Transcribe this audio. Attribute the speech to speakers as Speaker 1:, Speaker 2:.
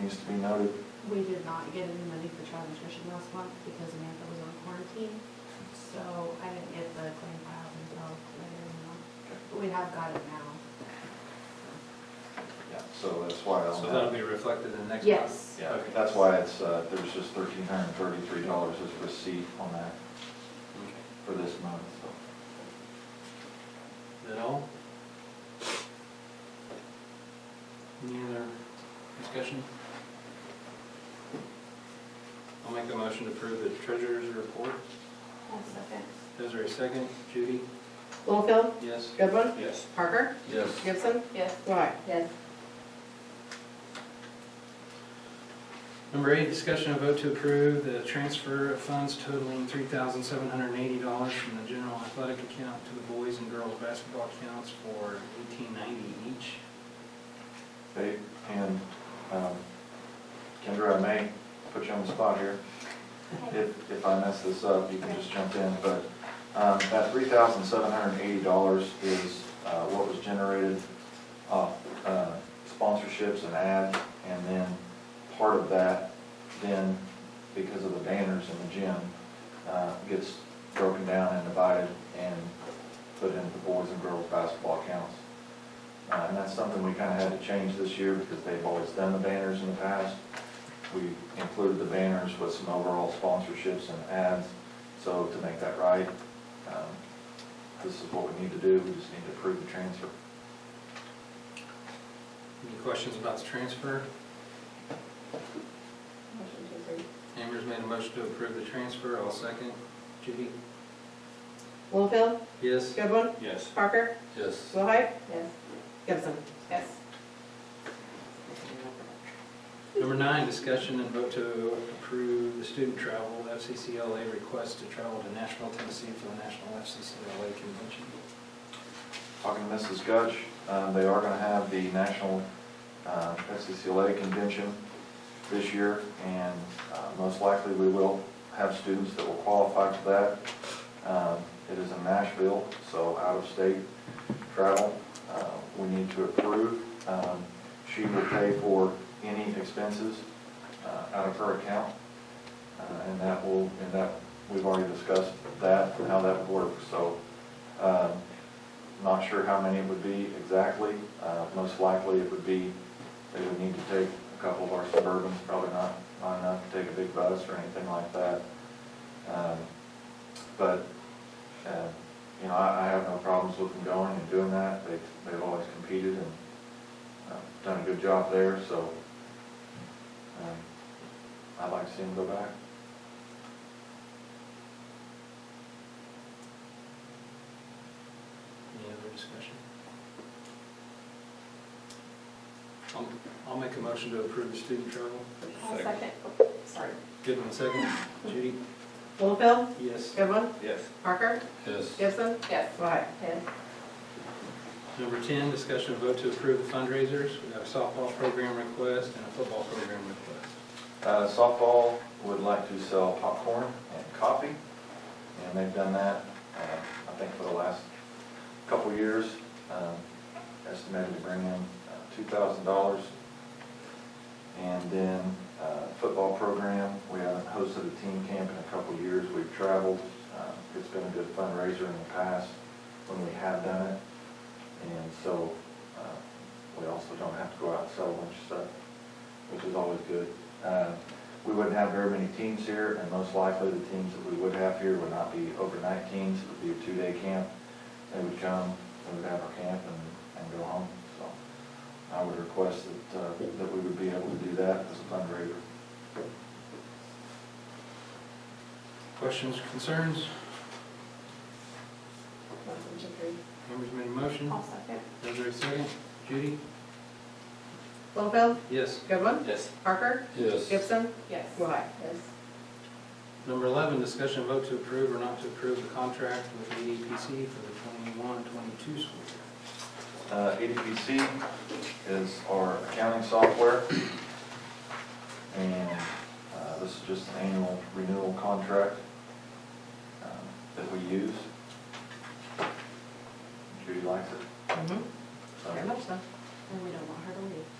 Speaker 1: needs to be noted.
Speaker 2: We did not get any money for child nutrition last month because Amanda was on quarantine, so I didn't get the claim filed until later in the month. But we have got it now.
Speaker 1: Yeah, so that's why
Speaker 3: So
Speaker 1: on
Speaker 3: that'll
Speaker 1: that,
Speaker 3: be reflected in the next.
Speaker 2: Yes.
Speaker 1: yeah,
Speaker 3: Okay.
Speaker 1: that's why it's, uh, there's just thirteen hundred and thirty-three dollars as receipt on that
Speaker 3: Okay.
Speaker 1: for this month, so.
Speaker 3: Is that all? Any other discussion? I'll make a motion to approve the treasurer's report.
Speaker 2: second.
Speaker 3: Desiree, second. Judy?
Speaker 4: Littlefield,
Speaker 3: Yes.
Speaker 4: Goodwin,
Speaker 3: Yes.
Speaker 4: Parker,
Speaker 3: Yes.
Speaker 4: Gibson,
Speaker 2: Yes.
Speaker 4: Wright.
Speaker 2: Yes.
Speaker 3: Number eight, discussion of vote to approve the transfer of funds totaling three thousand seven hundred and eighty dollars from the general athletic account to the boys and girls basketball accounts for eighteen ninety each.
Speaker 1: Okay, and, um, Kendra, I may put you on the spot here. If, if I mess this up, you can just jump in, but, um, that three thousand seven hundred and eighty dollars is, uh, what was generated off, uh, sponsorships and ads, and then part of that, then, because of the banners in the gym, uh, gets broken down and divided and put into the boys and girls basketball accounts. Uh, and that's something we kinda had to change this year, because they've always done the banners in the past. We included the banners with some overall sponsorships and ads, so to make that right, um, this is what we need to do, we just need to approve the transfer.
Speaker 3: Any questions about the transfer?
Speaker 2: Motion to approve.
Speaker 3: Amber's made a motion to approve the transfer, I'll second. Judy?
Speaker 4: Littlefield,
Speaker 3: Yes.
Speaker 4: Goodwin,
Speaker 3: Yes.
Speaker 4: Parker,
Speaker 3: Yes.
Speaker 4: Wright,
Speaker 2: Yes.
Speaker 4: Gibson.
Speaker 2: Yes.
Speaker 3: Number nine, discussion and vote to approve the student travel, FCCLA request to travel to Nashville, Tennessee for the National FCCLA Convention.
Speaker 1: Talking to Mrs. Gutch, um, they are going to have the National uh, FCCLA Convention this year, and uh, most likely we will have students that will qualify for that. Um, It is in Nashville, so out-of-state travel, uh, we need to approve. Um, She will pay for any expenses uh, out of her account, uh, and that will, and that, we've already discussed that, and how that would work, so um, not sure how many it would be exactly. Uh, Most likely, it would be, they would need to take a couple of our Suburbans, probably not, not enough to take a big bus or anything like that. Um, But, uh, you know, I, I have no problems with them going and doing that. They, they've always competed and uh, done a good job there, so um, I'd like to see them go back.
Speaker 3: Any other discussion? I'll, I'll make a motion to approve the student travel.
Speaker 2: second. Sorry.
Speaker 3: Good one, second. Judy?
Speaker 4: Littlefield,
Speaker 3: Yes.
Speaker 4: Goodwin,
Speaker 3: Yes.
Speaker 4: Parker,
Speaker 3: Yes.
Speaker 4: Gibson,
Speaker 2: Yes.
Speaker 4: Wright.
Speaker 2: Yes.
Speaker 3: Number 10, discussion of vote to approve the fundraisers. We got a softball program request and a football program request.
Speaker 1: Uh, Softball would like to sell popcorn and coffee, and they've done that, uh, I think, for the last couple of years. Um, Estimated to bring in uh, $2,000. And then uh, football program, we haven't hosted a team camp in a couple of years. We've traveled. Uh, It's been a good fundraiser in the past when we have done it. And so uh, we also don't have to go out and sell a bunch of stuff, which is always good. Uh, We wouldn't have very many teams here, and most likely the teams that we would have here would not be overnight teams. It would be a two-day camp. They would come, they would have our camp and, and go home. So I would request that, uh, that we would be able to do that as a fundraiser.
Speaker 3: Questions, concerns?
Speaker 2: Motion to approve.
Speaker 3: Amber's made a motion.
Speaker 2: I'll second.
Speaker 3: Desiree, second. Judy?
Speaker 4: Littlefield,
Speaker 3: Yes.
Speaker 4: Goodwin,
Speaker 3: Yes.
Speaker 4: Parker,
Speaker 3: Yes.
Speaker 4: Gibson,
Speaker 2: Yes.
Speaker 4: Wright.
Speaker 2: Yes.
Speaker 3: Number 11, discussion and vote to approve or not to approve the E contract with ADPC for the 21-22 school year.
Speaker 1: Uh, ADPC is our accounting software. And uh, this is just an annual renewal contract um, that we use. Judy likes it.
Speaker 4: Mm-hmm.
Speaker 1: so.
Speaker 4: Very much so.
Speaker 2: And we don't want her to leave.